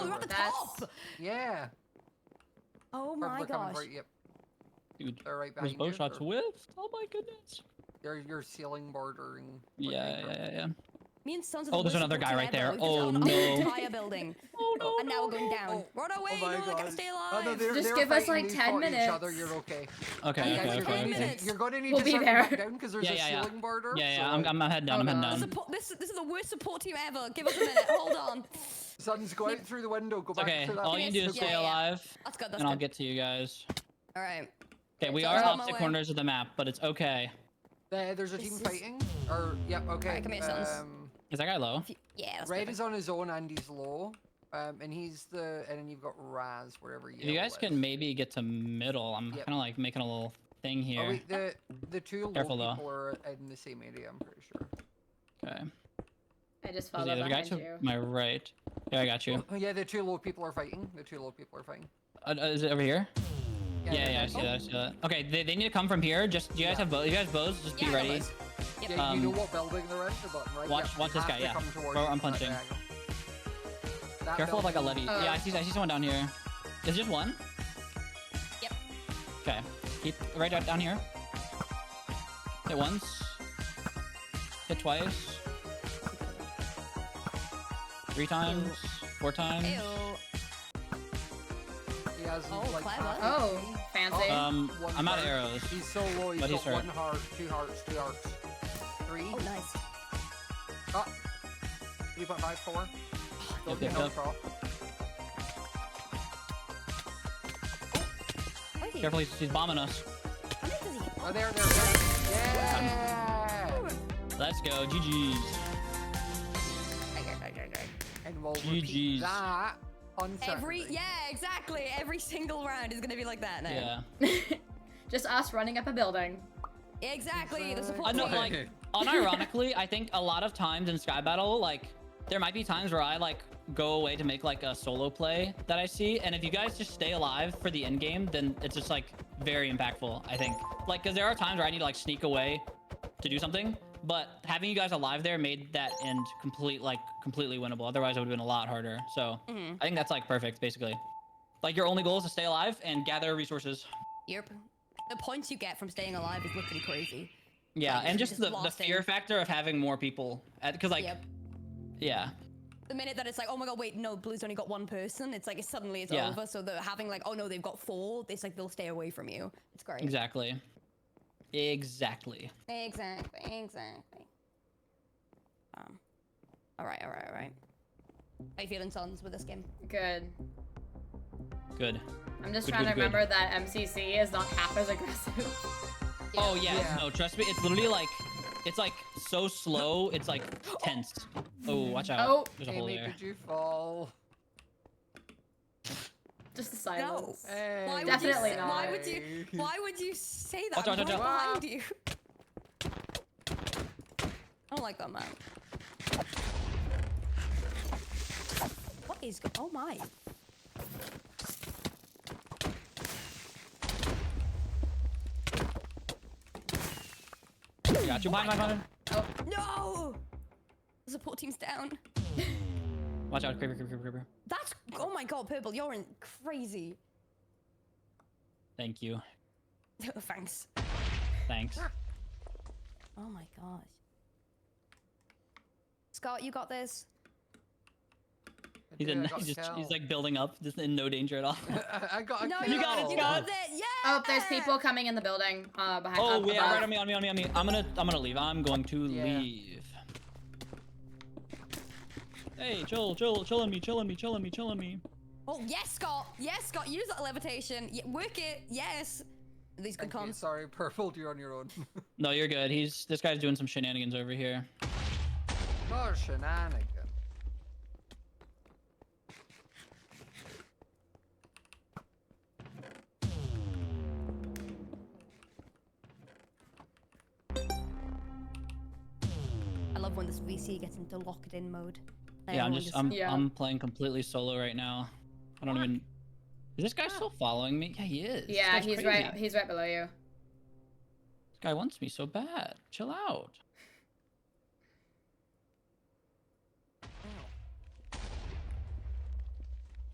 the Oh, That's- top. Yeah. Oh They're- my they're coming gosh. right- yep, Dude, they're right was behind bow you. shots They're- whiffed? Oh my goodness. They're your ceiling bordering. with Yeah, Minecraft. yeah, yeah, yeah. Me and Sons of Oh, the there's Merciful another guy right there. Dead, though, we Oh, just own no. Our entire building. Oh no. and now we're going no, down. oh, Run away! my no, I gotta God. stay Oh, alive. no, they're, Just they're give us, fighting. like, They 10 fought Each other. minutes. You're okay. no. Okay, You Yeah, guys are you're, okay, okay, ten gonna, okay. minutes. you're gonna need We'll to be start there. going down because there's Yeah, a yeah, yeah. ceiling border. Yeah, so yeah, I'm, like, I'm head down, I'm Oh, head no. The down. support- this, this is the worst support team ever. Give us a minute. Hold on. Sun's go out through the window. Go It's back okay, to that. all you Yes, do is yeah, stay yeah. alive, That's good. That's and I'll good. get to you guys. All right. Okay, we so are I'm on my opposite way. corners of the map, but it's okay. There, there's a This team is- fighting. Or yep, okay. come here, Suns. um, Is that guy low? If you- Yeah. That's Red perfect. is on his own and he's low. Um, and he's the and then you've got Raz wherever you. If you guys can maybe get to middle, I'm Yep. kind of like making a little thing Oh here. wait, the the two low Careful, though. people are in the same area. I'm pretty sure. Okay. I just There's follow the other guy behind to you. my right. Yeah, I got you. Oh, yeah, the two low people are fighting. The two low people are fighting. Oh, Uh, uh, is it over here? Yeah, yeah, they're I see fighting. that. I see that. Okay, they, they need to come from here. Just you guys Yeah. have bows. You guys bows. Just Yeah, I be got ready. this. Yep. Yeah, you know Um, what building they're in, the bottom right? watch- yeah, watch you this have guy, to yeah. come towards Bro, you I'm from that punching. diagonal. That Careful of like a building- levy. Uh, yeah, I see. I see someone down here. Is it just one? Yep. Okay. Keep right out down here. Hit once. Hit twice. Three times. Four times. Ew. He has, Oh, like, clever. half- Oh, fancy. Oh. Um, One I'm out of heart. arrows. He's so low. He's But he's got hurt. one heart, two hearts, two hearts, three. Oh, nice. Ah. Three point five four. Don't get yep, yep. knocked off. Thank you. Careful, he's, he's bombing us. How many does he hit? Oh, there, there, there. Yeah. Let's go. GG's. Okay, okay, okay, okay. And we'll GGs. repeat that on Every Saturday. yeah, exactly. Every single round is gonna be like that now. Yeah. just us running up a building. Exactly. The I support know, team. like, unironically, I think a lot of times in Sky Battle, like, there might be times where I like go away to make like a solo play that I see, and if you guys just stay alive for the end game, then it's just like very impactful. I think, like, because there are times where I need to like sneak away to do something, but having you guys alive there made that end complete, like, completely winnable. Otherwise, it would have been a lot harder. So Mhm. I think that's like perfect, basically. Like, your only goal is to stay alive and gather resources. Yep. The points you get from staying alive is literally crazy. Yeah, Like, and if you just, just the, the lost in. fear factor of having more people, because like, Yep. yeah. The minute that it's like, oh my god, wait, no, Blue's only got one person. It's like it's suddenly it's Yeah. over. So they're having like, oh no, they've got four. It's like they'll stay away from you. It's great. Exactly. Exactly. Exactly. Exactly. Um. All right. All right. All right. How you feeling, Sons, with this game? Good. Good. I'm just Good, trying to good, good. remember that MCC is not half as aggressive. Oh yeah, Yeah. no, trust me, it's literally like it's like so slow, it's like tense. Oh, watch out. Oh. There's a hole Amy, there. did you fall? just the silence. Hey. Why would Definitely you, say- not. Why would you? Why would you say that? I'm Watch out, watch right out. behind you. I don't like that man. What is? Go- oh my! Got you behind my phone. No! The support team's down. Watch out, creeper, creeper, creeper, creeper. That's. Oh my god, purple! You're in crazy. Thank you. Thanks. Thanks. Oh my gosh. Scott, you got this. I He's, did, in, I got he's, just, he's killed. like building up, just in no danger at all. I I got a No, kill. You got it, You got Scott. it. Yeah. Oh, there's people coming in the building. Uh, behind. oh up yeah, above. right on me, on me, on me, on me. I'm gonna I'm gonna leave. I'm going to Yeah. leave. Hey, chill, chill, chill on me, chill on me, chill on me, chill on me. Oh yes, Scott. Yes, Scott. Use that levitation. Ye- work it. Yes. These good Thank you. comms. Sorry, purple. You're on your own. No, you're good. He's this guy's doing some shenanigans over here. oh, shenanigan. I love when this VC gets into locked in mode. And Yeah, I'm everyone just I'm Yeah. I'm playing completely solo right now. I don't even. Is this guy still following me? Yeah, he is. This Yeah, guy's he's crazy. right. He's right below you. This guy wants me so bad. Chill out.